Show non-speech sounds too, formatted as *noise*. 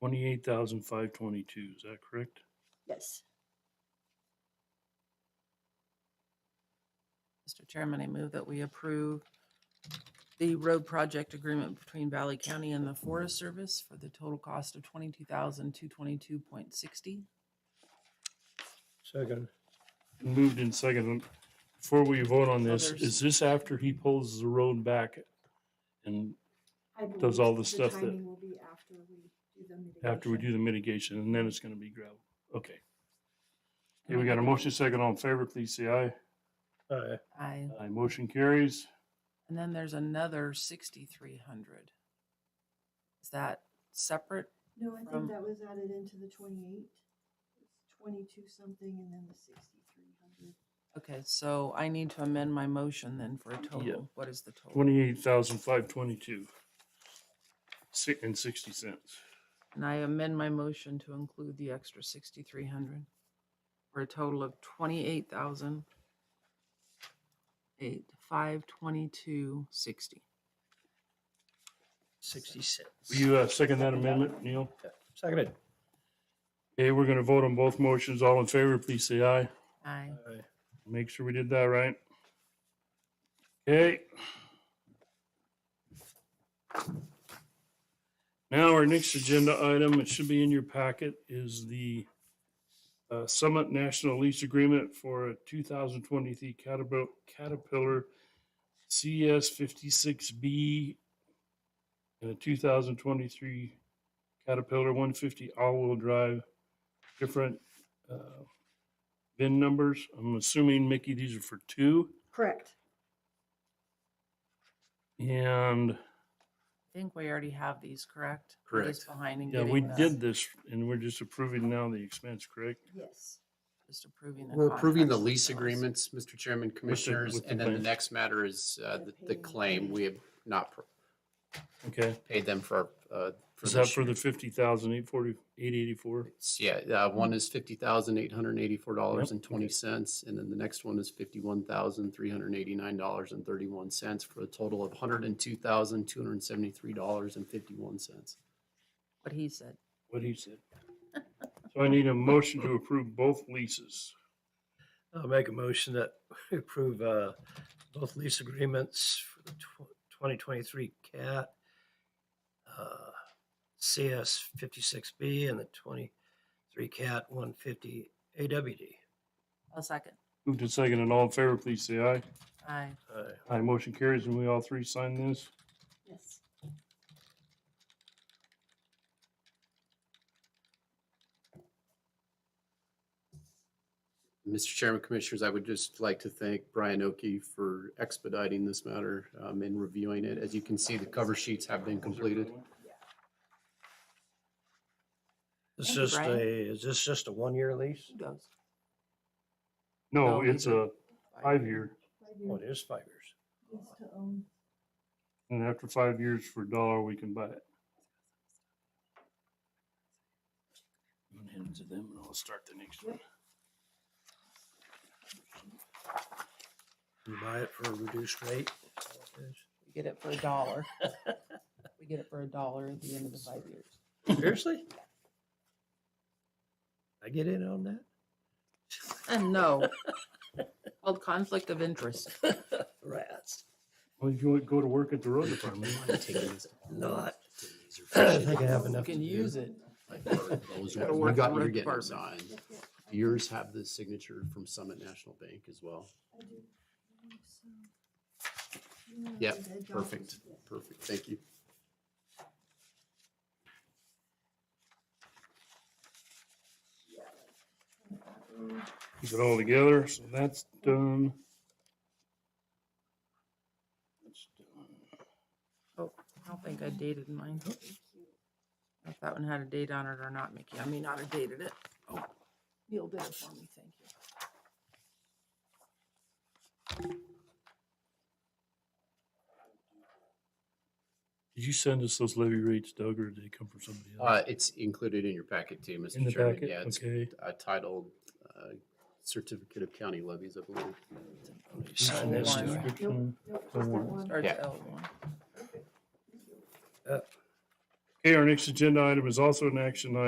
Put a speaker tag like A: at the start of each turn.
A: Twenty-eight thousand five twenty-two, is that correct?
B: Yes.
C: Mr. Chairman, I move that we approve the road project agreement between Valley County and the Forest Service for the total cost of twenty-two thousand, two twenty-two point sixty.
D: Second.
A: Moved in second. Before we vote on
C: So
A: this,
C: there's-
A: is this after he pulls the road back? And
B: I believe
A: Does all the stuff that-
B: timing Will be after we do the mitigation.
A: after we do the mitigation, and then it's gonna be gravel? Okay. Here, we got a motion second. All in favor, please say aye.
D: Aye.
C: Aye.
A: Aye, motion carries.
C: And then there's another sixty-three hundred. Is that separate?
B: No, I think
C: from-
B: that was added into the twenty-eight. It's Twenty-two something and then the sixty-three hundred.
C: Okay, so I need to amend my motion then for a total. What is the total?
A: Twenty-eight thousand five twenty-two. Six and sixty cents.
C: And I amend my motion to include the extra sixty-three hundred for a total of twenty-eight thousand eight, five twenty-two sixty.
D: Sixty-six.
A: Will you, uh, second that amendment, Neil?
D: Seconded.
A: Okay, we're gonna vote on both motions. All in favor, please say aye.
C: Aye.
D: Aye.
A: Make sure we did that right. Okay. Now, our next agenda item, it should be in your packet, is the uh, Summit National Lease Agreement for a 2023 Caterpillar- Caterpillar CS 56B and a 2023 Caterpillar 150 all-wheel drive, different uh, VIN numbers. I'm assuming, Mickey, these are for two.
B: Correct.
A: And
C: I think we already have these, correct? We're just Behind and
A: yeah,
C: getting.
A: we
C: the-
A: did this and we're just approving now the expense, correct?
B: Yes.
C: Just approving. the
E: We're approving the
C: contracts
E: lease
C: themselves.
E: agreements, Mr. Chairman, Commissioners,
A: with the
E: and then the
A: claims.
E: next matter is uh,
B: The
E: the- the
B: payment.
E: claim. We have not pr-
A: Okay.
E: paid them for. uh,
A: Is that
E: this
A: for
E: year.
A: the fifty thousand eight forty, eight eighty-four?
E: It's- Yeah, uh, one is fifty thousand eight hundred and eighty-four dollars and
A: Yep, okay.
E: twenty cents, and then the next one is fifty-one thousand three hundred and eighty-nine dollars and thirty-one cents for a total of hundred and two thousand two hundred and seventy-three dollars and fifty-one cents.
C: What he said.
A: What he said. *laughs* So I need a motion to approve both leases.
D: I'll make a motion that we approve uh, both lease agreements for the twenty twenty-three CAT uh, CS fifty-six B and the twenty-three CAT one fifty AWD.
C: A second.
A: Moved to second and all in favor, please say aye.
C: Aye.
D: Aye.
A: Aye, motion carries and we all three sign this.
B: Yes.
E: Mr. Chairman, Commissioners, I would just like to thank Brian Oki for expediting this matter um, and reviewing it. As you can see, the cover sheets have been completed.
D: Is
C: Thank you,
D: this
C: Brian. Mm-hmm.
D: a, is this just a one-year lease?
C: Who goes?
A: No,
C: No,
A: it's
C: these are
A: a five-year
B: Five
D: Oh,
B: years
D: it is five years.
B: lease to own.
A: and after five years for a dollar, we can buy it. I'm gonna hand it to them and I'll start the next one.
D: You buy it for a reduced rate? Is that what it is?
C: We get it for a dollar. *laughs* We get it for a dollar at the end of the five years.
D: Seriously? I get in on that?
C: And no. Called conflict of interest.
D: Rats.
A: Well, you would go to work at the road department.
D: Not. I think *clears throat* I have
C: You
D: enough.
C: can
D: to do.
C: use it.
E: Those
D: *laughs*
C: Gotta
E: are- You
C: work
E: got,
C: the
E: you're
C: road
E: getting
C: department.
E: signed. Yours have the signature from Summit National Bank as well.
B: I do. believe so. Yeah, I
E: Yep,
B: think I got it.
E: Perfect,
B: Yes.
E: perfect. Thank you.
A: Keep it all together, so that's done. That's done.
C: I don't think I dated mine. If that one had a date on it or not, Mickey. I mean, not have dated it. Oh, Neil did it for me, thank you.
A: Did you send us those levy rates, Doug, or did they come from somebody else?
E: Uh, it's included in your packet too,
A: In
E: Mr.
A: the
E: Chairman.
A: packet,
E: Uh, Yeah, it's
A: okay.
E: uh, titled uh, Certificate of County Levies, I believe.
D: You Sign this,
C: Hold
D: do
C: on.
D: I?
A: Description.
B: Nope, just
A: Don't
B: that
A: worry.
B: one.
C: Starts
E: Yeah.
C: L one.
A: Okay, our next agenda item is also an action item.